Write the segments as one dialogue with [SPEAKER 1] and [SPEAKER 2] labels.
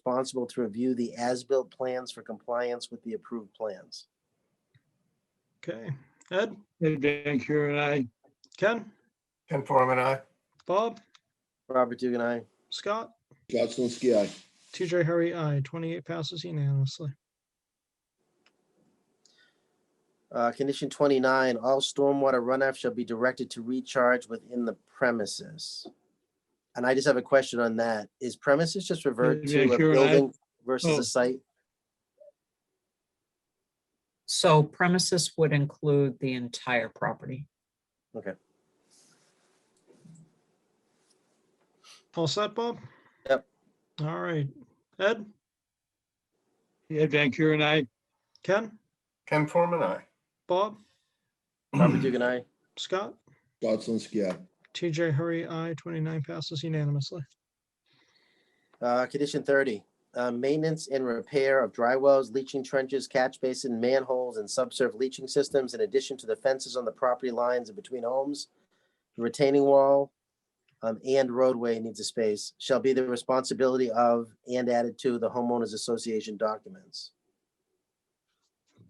[SPEAKER 1] responsible to review the as-built plans for compliance with the approved plans.
[SPEAKER 2] Okay, Ed,
[SPEAKER 3] Ed Van Kuren, I.
[SPEAKER 2] Ken,
[SPEAKER 4] Ken Forman, aye.
[SPEAKER 2] Bob,
[SPEAKER 1] Robert Dugan, I.
[SPEAKER 2] Scott,
[SPEAKER 5] Scott Zelinski, aye.
[SPEAKER 2] TJ Hurry, I. 28 passes unanimously.
[SPEAKER 1] Uh, condition twenty-nine, all stormwater runoff shall be directed to recharge within the premises. And I just have a question on that. Is premises just revert
[SPEAKER 3] Yeah,
[SPEAKER 1] to a
[SPEAKER 3] sure, I-
[SPEAKER 1] building versus
[SPEAKER 3] oh.
[SPEAKER 1] a site?
[SPEAKER 6] So premises would include the entire property.
[SPEAKER 2] All set, Bob?
[SPEAKER 1] Yep.
[SPEAKER 2] All right, Ed,
[SPEAKER 3] Ed Van Kuren, I.
[SPEAKER 2] Ken,
[SPEAKER 4] Ken Forman, aye.
[SPEAKER 2] Bob,
[SPEAKER 1] Robert Dugan, I.
[SPEAKER 2] Scott,
[SPEAKER 5] Scott Zelinski, aye.
[SPEAKER 2] TJ Hurry, I. 29 passes unanimously.
[SPEAKER 1] Uh, condition thirty, uh, maintenance and repair of dry wells, leaching trenches, catch basin, manholes, and subsurf leaching systems in addition to the fences on the property lines and between homes. the Retaining wall, um, and roadway needs a space, shall be the responsibility of and added to the homeowners association documents.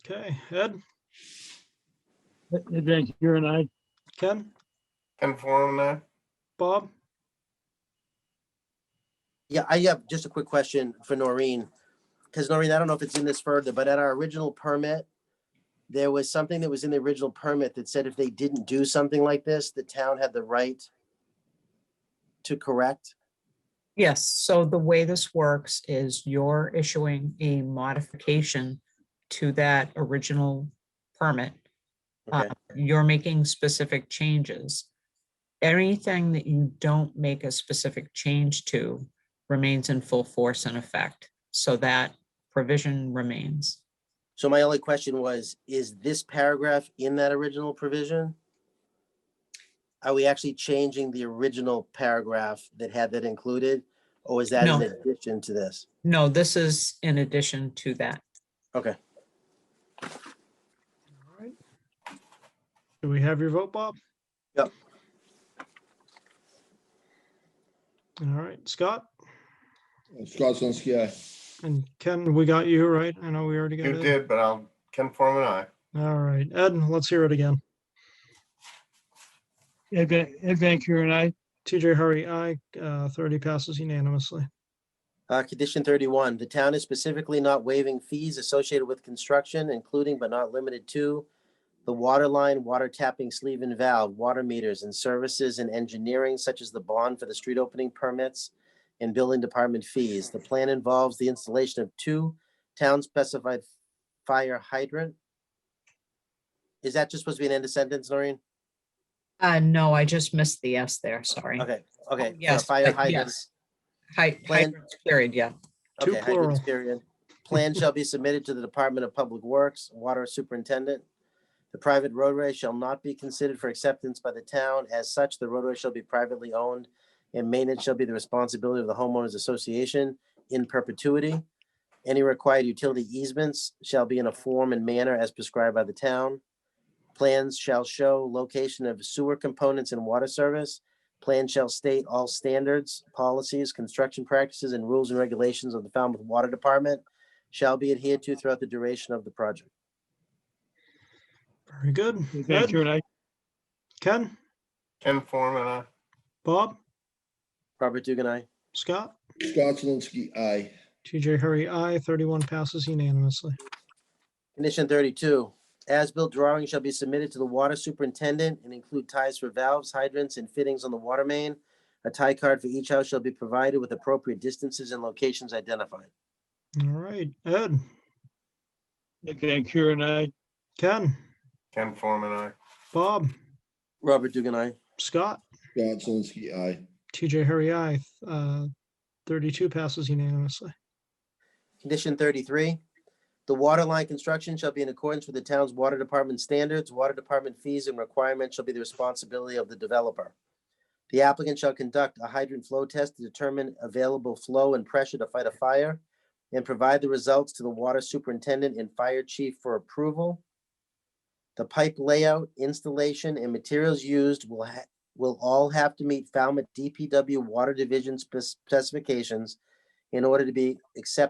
[SPEAKER 2] Okay, Ed,
[SPEAKER 3] Ed Van Kuren, I.
[SPEAKER 2] Ken,
[SPEAKER 4] Ken Forman, aye.
[SPEAKER 2] Bob,
[SPEAKER 1] Yeah, I have just a quick question for Noreen. Because Noreen, I don't know if it's in this further, but at our original permit, there was something that was in the original permit that said if they didn't do something like this, the town had the right to correct.
[SPEAKER 6] Yes, so the way this works is you're issuing a modification to that original permit. Uh,
[SPEAKER 1] Okay,
[SPEAKER 6] You're making specific changes. Anything that you don't make a specific change to remains in full force and effect. So that provision remains.
[SPEAKER 1] so my only question was, is this paragraph in that original provision? Are we actually changing the original paragraph that had that included? Or is that in
[SPEAKER 6] No.
[SPEAKER 1] addition to this?
[SPEAKER 6] No, this is in addition to that.
[SPEAKER 2] all right. Do we have your vote, Bob?
[SPEAKER 1] Yep.
[SPEAKER 2] All right, Scott
[SPEAKER 5] Scott Zelinski, aye.
[SPEAKER 2] and Ken, we got you, right? I know we already got
[SPEAKER 4] You
[SPEAKER 2] it.
[SPEAKER 4] did, but I'll, Ken Forman, aye.
[SPEAKER 2] All right, Ed, let's hear it again.
[SPEAKER 3] Ed Van, Ed Van Kuren, I.
[SPEAKER 2] TJ Hurry, I. Uh, 30 passes unanimously.
[SPEAKER 1] Uh, condition thirty-one, the town is specifically not waiving fees associated with construction, including but not limited to the water line, water tapping sleeve and valve, water meters and services and engineering such as the bond for the street opening permits and building department fees. The plan involves the installation of two town-specified fire hydrant. Is that just supposed to be an end of sentence, Noreen?
[SPEAKER 6] Uh, no, I just missed the S there, sorry.
[SPEAKER 1] Okay, okay. for
[SPEAKER 6] Oh, yes,
[SPEAKER 1] Fire
[SPEAKER 6] but
[SPEAKER 1] hydrants.
[SPEAKER 6] Hy-
[SPEAKER 1] Plan-
[SPEAKER 6] hydrants, period, yeah.
[SPEAKER 2] Two
[SPEAKER 1] Okay, hydrant
[SPEAKER 2] plural.
[SPEAKER 1] period. Plan shall be submitted to the Department of Public Works, Water Superintendent. The private roadway shall not be considered for acceptance by the town. As such, the roadway shall be privately owned and maintenance shall be the responsibility of the homeowners association in perpetuity. Any required utility easements shall be in a form and manner as prescribed by the town. Plans shall show location of sewer components and water service. Plan shall state all standards, policies, construction practices, and rules and regulations of the Falmouth Water Department shall be adhered to throughout the duration of the project.
[SPEAKER 2] Very good.
[SPEAKER 3] Ed Van
[SPEAKER 2] Ed,
[SPEAKER 3] Kuren, I.
[SPEAKER 2] Ken,
[SPEAKER 4] Ken Forman, aye.
[SPEAKER 2] Bob,
[SPEAKER 1] Robert Dugan, I.
[SPEAKER 2] Scott,
[SPEAKER 5] Scott Zelinski, aye.
[SPEAKER 2] TJ Hurry, I. 31 passes unanimously.
[SPEAKER 1] Condition thirty-two, as-built drawings shall be submitted to the water superintendent and include ties for valves, hydrants, and fittings on the water main. A tie card for each house shall be provided with appropriate distances and locations identified.
[SPEAKER 2] All right, Ed,
[SPEAKER 3] Ed Van Kuren, I.
[SPEAKER 2] Ken,
[SPEAKER 4] Ken Forman, aye.
[SPEAKER 2] Bob,
[SPEAKER 1] Robert Dugan, I.
[SPEAKER 2] Scott,
[SPEAKER 5] Scott Zelinski, aye.
[SPEAKER 2] TJ Hurry, I. Uh, 32 passes unanimously.
[SPEAKER 1] Condition thirty-three, the water line construction shall be in accordance with the town's water department standards. Water department fees and requirements shall be the responsibility of the developer. The applicant shall conduct a hydrant flow test to determine available flow and pressure to fight a fire and provide the results to the water superintendent and fire chief for approval. The pipe layout, installation, and materials used will ha- will all have to meet Falmouth DPW Water Division spec- specifications in order to be accepted